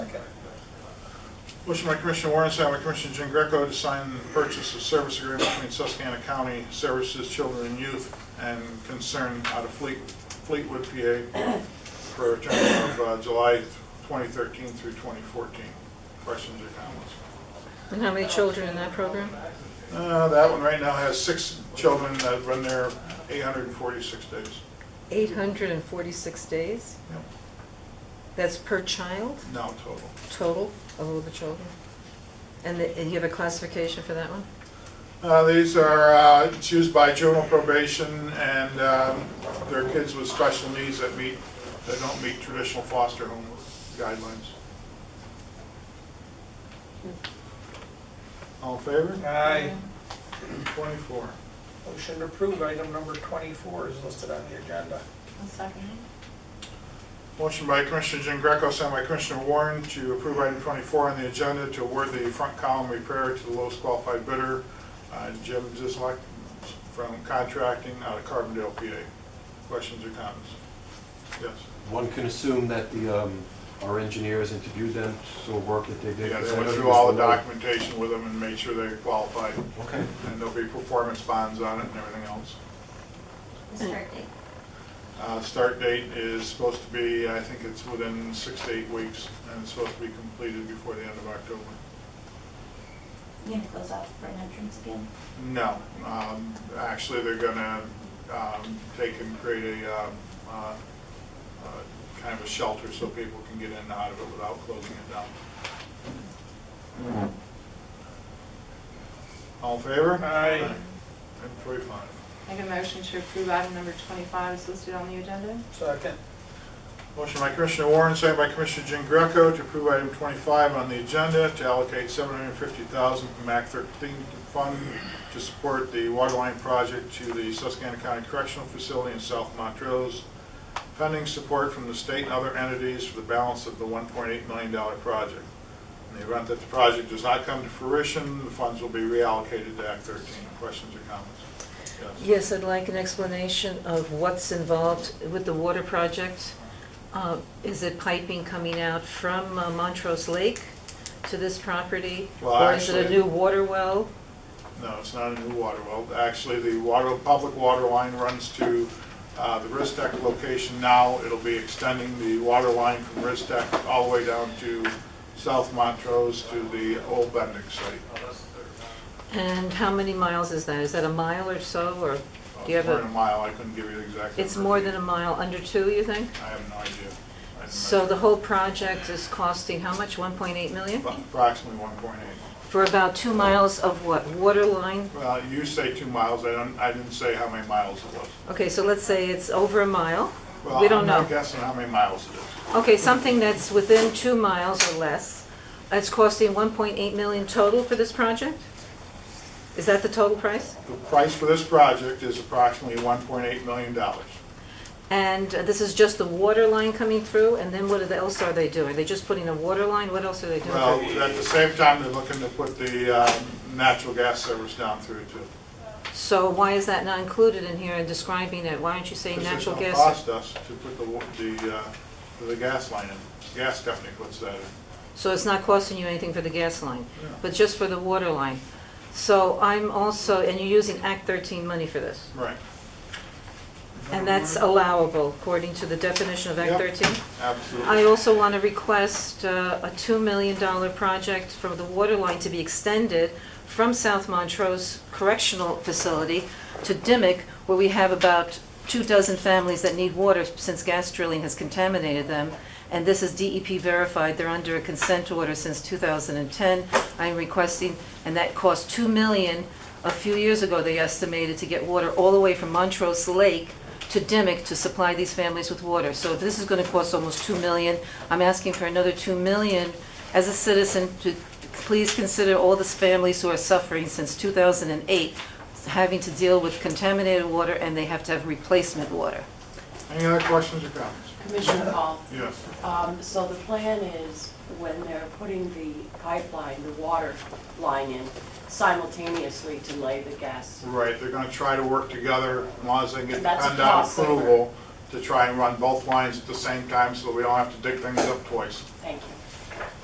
Motion by Commissioner Warren, second by Commissioner Jean Greco to sign the purchase of service agreement between Susquehanna County Services, Children and Youth, and Concern out of Fleet, Fleetwood, PA, for a term of uh, July 2013 through 2014. Questions or comments? And how many children in that program? Uh, That one right now has six children that run there 846 days. 846 days? Yep. That's per child, No total. total of all the children? And the- and you have a classification for that one? Uh, These are, uh, it's used by juvenile probation and um, they're kids with special needs that meet, that don't meet traditional foster home guidelines. All in favor? Aye. 24. Motion to approve item number 24 is listed on the agenda. I'll second Motion by Commissioner Jean Greco, signed by Commissioner Warren to approve item 24 on the agenda to award the front column repair to the lowest qualified bidder, uh, Jim Zislak from Contracting out of Carbondale, PA. Questions or comments? Yes? One can assume that the, um, our engineers interviewed them, so work that they did. Yeah, because they went I know through there was all the the one- documentation with them and made sure they qualified, Okay. and there'll be performance bonds on it and everything else. it. Start date. Uh, Start date is supposed to be, I think it's within six to eight weeks, and it's supposed to be completed before the end of October. You gonna close out for an entrance again? No, um, actually, they're gonna um, take and create a, um, uh, uh, kind of a shelter so people can get in and out of it without closing it down. All in favor? Aye. Item forty-five. Make a motion to approve item number 25 is listed on the agenda. Second. Motion by Commissioner Warren, second by Commissioner Jean Greco to approve item 25 on the agenda to allocate 750000 from Act 13 Fund to support the waterline project to the Susquehanna County Correctional Facility in South Montrose, pending support from the state and other entities for the balance of the $1.8 million project. In the event that the project does not come to fruition, the funds will be reallocated to Act 13. Questions or comments? Yes. Yes, I'd like an explanation of what's involved with the water project. Uh, Is it piping coming out from uh, Montrose Lake to this property? Well, Or is it a actually- new water well? No, it's not a new water well. Actually, the water, public water line runs to uh, the Ristec location now. It'll be extending the water line from Ristec all the way down to South Montrose to the old Bendix site. And how many miles is that? Is that a mile or so, or do you have Oh, It's More than a a, mile, I couldn't give you the exact. it's number. more than a mile, under two, you think? I have no idea. I didn't So measure. the whole project is costing how much, 1.8 million? Approximately 1.8. For about two miles of what, water line? Well, you say two miles, I don't, I didn't say how many miles it was. Okay, so let's say it's over a mile. Well, We don't I'm not know. guessing how many miles it is. Okay, something that's within two miles or less, it's costing 1.8 million total for this project? Is that the total price? The price for this project is approximately 1.8 million dollars. And uh, this is just the water line coming through, and then what are the- else are they doing? Are they just putting a water line? What else are they doing? Well, at the same time, they're looking to put the um, natural gas service down through too. So why is that not included in here and describing it? Why aren't you saying natural Because gas? It's gonna cost us to put the, wa- the, uh, the gas line in. Gas company puts that in. So it's not costing you anything for the gas line, No. but just for the water line. So I'm also, and you're using Act 13 money for this, Right, and that's allowable according to the definition of Act Yep. 13? I absolutely. also want to request uh, a $2 million project for the water line to be extended from South Montrose Correctional Facility to Dimick, where we have about two dozen families that need water since gas drilling has contaminated them. And this is DEP verified, they're under a consent order since 2010. I'm requesting, and that cost $2 million. A few years ago, they estimated to get water all the way from Montrose Lake to Dimick to supply these families with water. So this is going to cost almost 2 million. I'm asking for another 2 million as a citizen to please consider all these families who are suffering since 2008, having to deal with contaminated water and they have to have replacement water. Any other questions or comments? Commissioner Hall, Yes. um, so the plan is when they're putting the pipeline, the water line in simultaneously to lay the gas. Right, they're gonna try to work together, as long as they get the That's PennDOT possible. approval, to try and run both lines at the same time, so we don't have to dig things up twice. Thank you.